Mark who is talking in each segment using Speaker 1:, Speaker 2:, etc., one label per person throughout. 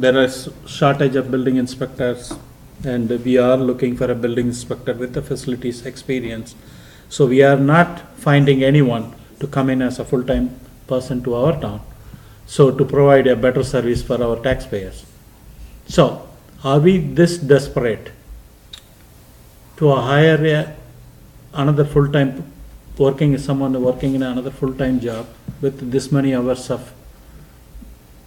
Speaker 1: There is shortage of building inspectors, and we are looking for a building inspector with the facilities experience. So we are not finding anyone to come in as a full-time person to our town, so to provide a better service for our taxpayers. So, are we this desperate to hire a, another full-time, working, someone working in another full-time job with this many hours of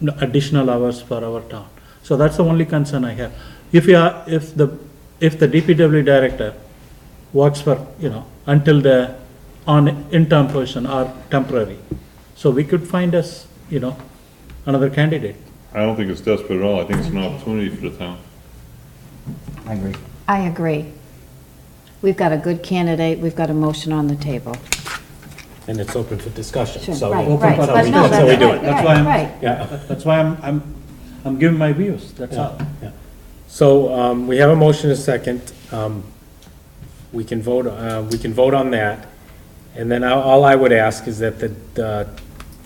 Speaker 1: no- additional hours for our town. So that's the only concern I have. If you are, if the, if the DPW director works for, you know, until the, on interim person or temporary, so we could find us, you know, another candidate.
Speaker 2: I don't think it's desperate at all, I think it's an opportunity for the town.
Speaker 3: I agree.
Speaker 4: I agree. We've got a good candidate, we've got a motion on the table.
Speaker 5: And it's open for discussion,
Speaker 4: Sure,
Speaker 5: so.
Speaker 4: Right,
Speaker 1: open
Speaker 4: right,
Speaker 1: for
Speaker 4: but
Speaker 1: discussion.
Speaker 4: no,
Speaker 5: That's how we
Speaker 4: that's
Speaker 5: do
Speaker 4: right,
Speaker 5: it.
Speaker 1: That's why I'm-
Speaker 4: right, right.
Speaker 5: Yeah,
Speaker 1: That's why I'm, I'm, I'm giving my views, that's all.
Speaker 5: yeah. So, um, we have a motion and a second. Um, we can vote, uh, we can vote on that. And then I- all I would ask is that the, uh,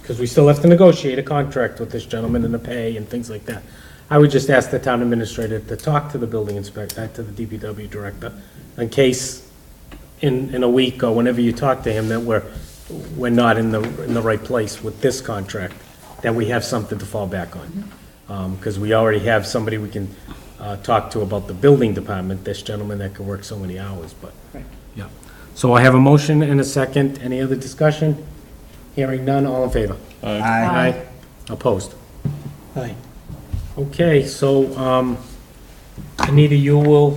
Speaker 5: because we still have to negotiate a contract with this gentleman and the pay and things like that. I would just ask the town administrator to talk to the building inspector, uh, to the DPW director, in case in, in a week or whenever you talk to him that we're, we're not in the, in the right place with this contract, that we have something to fall back on. Because we already have somebody we can uh, talk to about the building department, this gentleman that can work so many hours, but. Yeah. So I have a motion and a second. Any other discussion? Hearing none, all in favor?
Speaker 3: I
Speaker 5: Aye. Opposed?
Speaker 1: Aye.
Speaker 5: Okay, so um, Anita, you will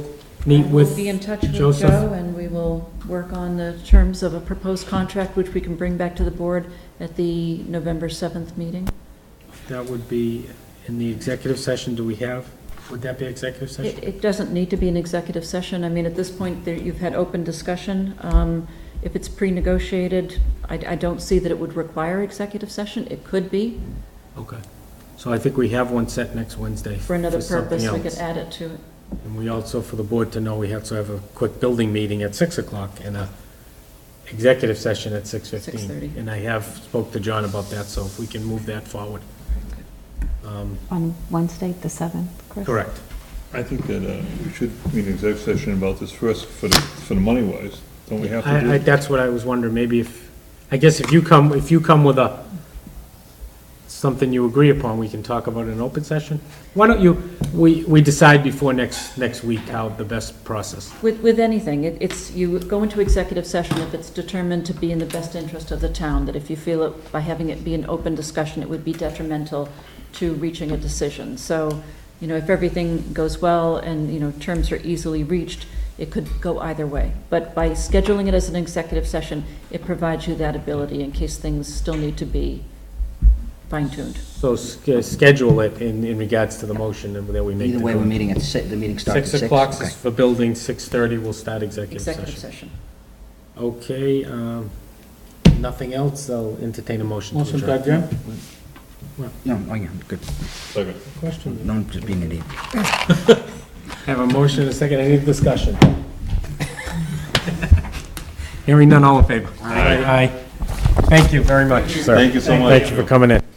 Speaker 5: meet
Speaker 6: We'll
Speaker 5: with
Speaker 6: be in touch with
Speaker 5: Joseph.
Speaker 6: Joe, and we will work on the terms of a proposed contract, which we can bring back to the board at the November 7th meeting.
Speaker 5: That would be in the executive session, do we have, would that be executive
Speaker 6: It,
Speaker 5: session?
Speaker 6: it doesn't need to be an executive session. I mean, at this point, there, you've had open discussion. Um, If it's pre-negotiated, I, I don't see that it would require executive session. It could be
Speaker 5: Okay. So I think we have one set next Wednesday.
Speaker 6: for another
Speaker 5: something
Speaker 6: purpose. We could
Speaker 5: else.
Speaker 6: add it to it.
Speaker 5: And we also, for the board to know, we have to have a quick building meeting at 6 o'clock and a executive session at 6:15.
Speaker 6: 6:30.
Speaker 5: And I have spoke to John about that, so if we can move that forward.
Speaker 4: On Wednesday, the 7th, Chris?
Speaker 5: Correct.
Speaker 2: I think that uh, we should meet an exec session about this first, for the, for the money wise, don't we have to do?
Speaker 5: I, I, that's what I was wondering, maybe if, I guess if you come, if you come with a, something you agree upon, we can talk about it in an open session? Why don't you, we, we decide before next, next week how the best process.
Speaker 6: With, with anything, it- it's, you go into executive session if it's determined to be in the best interest of the town, that if you feel it, by having it be an open discussion, it would be detrimental to reaching a decision. So, you know, if everything goes well and, you know, terms are easily reached, it could go either way. But by scheduling it as an executive session, it provides you that ability in case things still need to be fine-tuned.
Speaker 5: So sch- schedule it in, in regards to the motion and that we make.
Speaker 3: Either
Speaker 5: the
Speaker 3: way, we're
Speaker 5: vote.
Speaker 3: meeting at six, the meeting starts
Speaker 5: Six
Speaker 3: at six.
Speaker 5: o'clock
Speaker 3: Okay.
Speaker 5: is for building, six-thirty, we'll start executive
Speaker 6: Executive
Speaker 5: session.
Speaker 6: session.
Speaker 5: Okay, um, nothing else, I'll entertain a motion to
Speaker 1: Motion to
Speaker 5: adjourn.
Speaker 1: adjourn?
Speaker 3: No, oh yeah, good.
Speaker 2: Second.
Speaker 5: Question.
Speaker 3: No, I'm just being an idiot.
Speaker 5: Have a motion and a second, any discussion? Hearing none, all in favor? Aye. Thank you very much, sir.
Speaker 2: Thank you so much.
Speaker 5: Thank you for coming in.